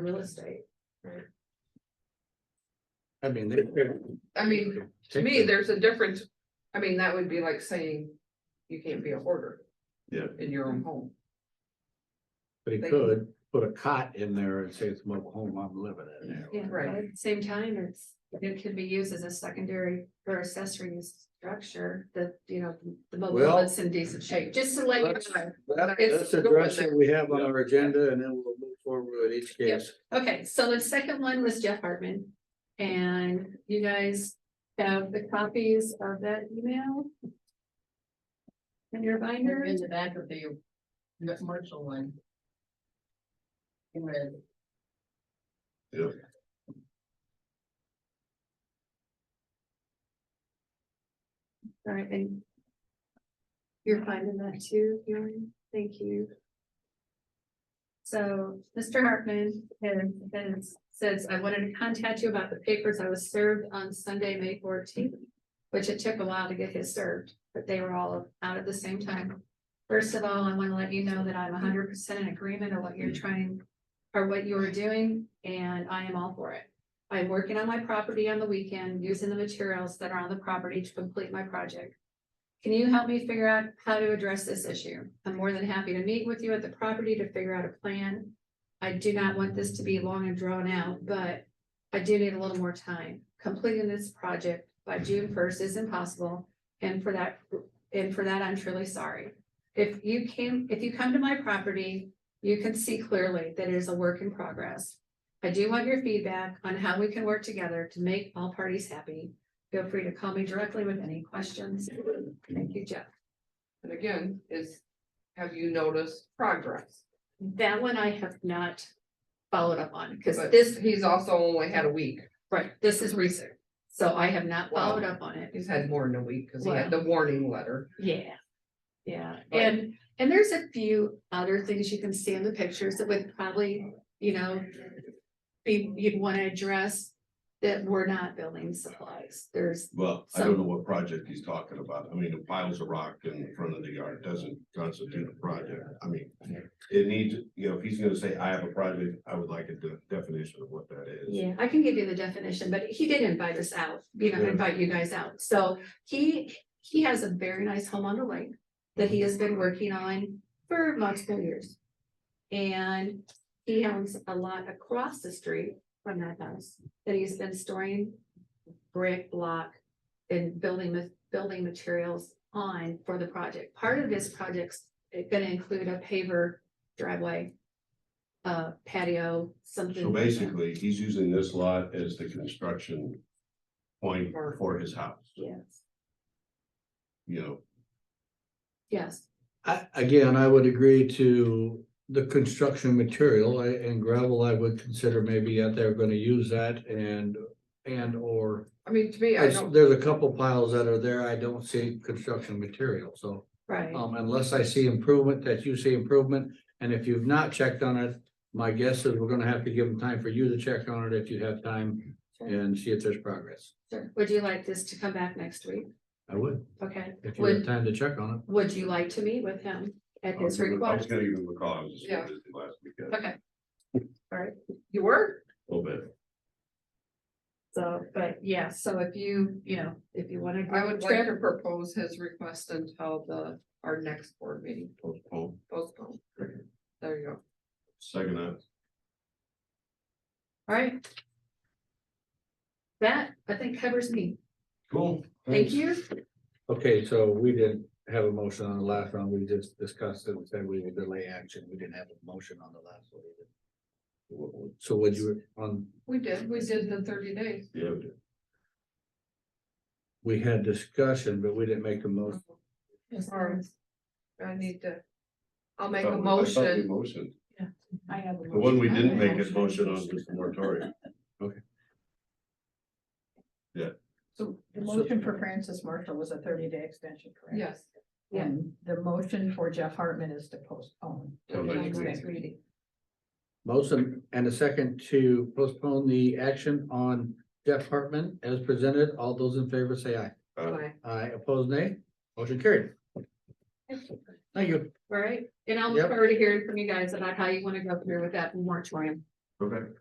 real estate. I mean, they. I mean, to me, there's a difference. I mean, that would be like saying you can't be a hoarder. Yeah. In your own home. But he could put a cot in there and say it's mobile home, I'm living in there. Yeah, Right. but at the same time, it's, it could be used as a secondary or accessory use structure that, you know, the mobile Well- home's in decent shape, just to let you know. That- It's Let's address going what we have on our agenda and then we'll move forward with each case. Okay, so the second one was Jeff Hartman. And you guys have the copies of that email? In your binder? In the back of the, the commercial one. In red. Yep. All right, and you're finding that too, Bjorn? Thank you. So Mr. Hartman has, has- says, I wanted to contact you about the papers I was served on Sunday, May fourteenth, which it took a while to get his served, but they were all out at the same time. First of all, I want to let you know that I'm hundred percent in agreement on what you're trying, or what you're doing, and I am all for it. I'm working on my property on the weekend using the materials that are on the property to complete my project. Can you help me figure out how to address this issue? I'm more than happy to meet with you at the property to figure out a plan. I do not want this to be long and drawn out, but I do need a little more time. Completing this project by June first is impossible, and for that, and for that, I'm truly sorry. If you came, if you come to my property, you can see clearly that it is a work in progress. I do want your feedback on how we can work together to make all parties happy. Feel free to call me directly with any questions. Thank you, Jeff. And again, is, have you noticed progress? That one I have not followed up on, because But this, He's also only had a week. right, this is recent, so I have not followed up on it. He's had more than a week because he had the warning letter. Yeah. Yeah, But- and, and there's a few other things you can see in the pictures that would probably, you know. Be, you'd wanna address that were not building supplies, there's, Well, I don't know what project he's talking about. I mean, the piles of rock in front of the yard doesn't constitute a project. I mean. It needs, you know, if he's gonna say, I have a project, I would like a de- definition of what that is. yeah, I can give you the definition, but he did invite us out, you know, Yeah. invite you guys out, so he, he has a very nice home on the lake. That he has been working on for multiple years. And he owns a lot across the street from that house that he's been storing brick block and building, ma- building materials on for the project. Part of this project's gonna include a paver driveway, uh, patio, something. So basically, he's using this lot as the construction point for his house, Yes, you know. yes, I, again, I would agree to the construction material I- and gravel, I would consider maybe that they're gonna use that and, and or. I mean, to me, I There's don't, there's a couple piles that are there, I don't see construction material, so. right. Um, unless I see improvement, that you see improvement, and if you've not checked on it, my guess is we're gonna have to give them time for you to check on it if you have time and see if there's progress. Sure. Would you like this to come back next week? I would, Okay, if you have would, time to check on would you like to meet with him at I was his gonna I request? was gonna give him a call, I was just Yeah. busy last weekend, Okay, you were, a little bit. so, but yeah, so if you, you know, if you wanna. I would like to propose his request until the, our next board meeting Postpone. postponed. There you go. Second, that. All right. That, I think covers me. cool. Thank thanks. you. it. Okay, so we didn't have a motion on the last one, we just discussed it and said we would delay action, we didn't have a motion on the last one. either. Wha- wha- So would you, um, on, We did, we did the thirty days. Yeah, we had discussion, but we didn't make a motion. Or I need to, I'll make Oh, I a thought we- I thought we motion. Motion. I have. The one we didn't make a motion on was the moratorium. So the motion for Francis Marshall was a thirty day extension, correct? Yes. Yeah. And the motion for Jeff Hartman is to postpone. Till next Till week. next meeting. Motion and a second to postpone the action on Jeff Hartman as presented. All those in favor say aye. Uh, Fine. Aye, opposed nay. Motion carried. Thank you. All right, and I'll Yep. look forward to hearing from you guys about how you wanna go through with that moratorium. Okay.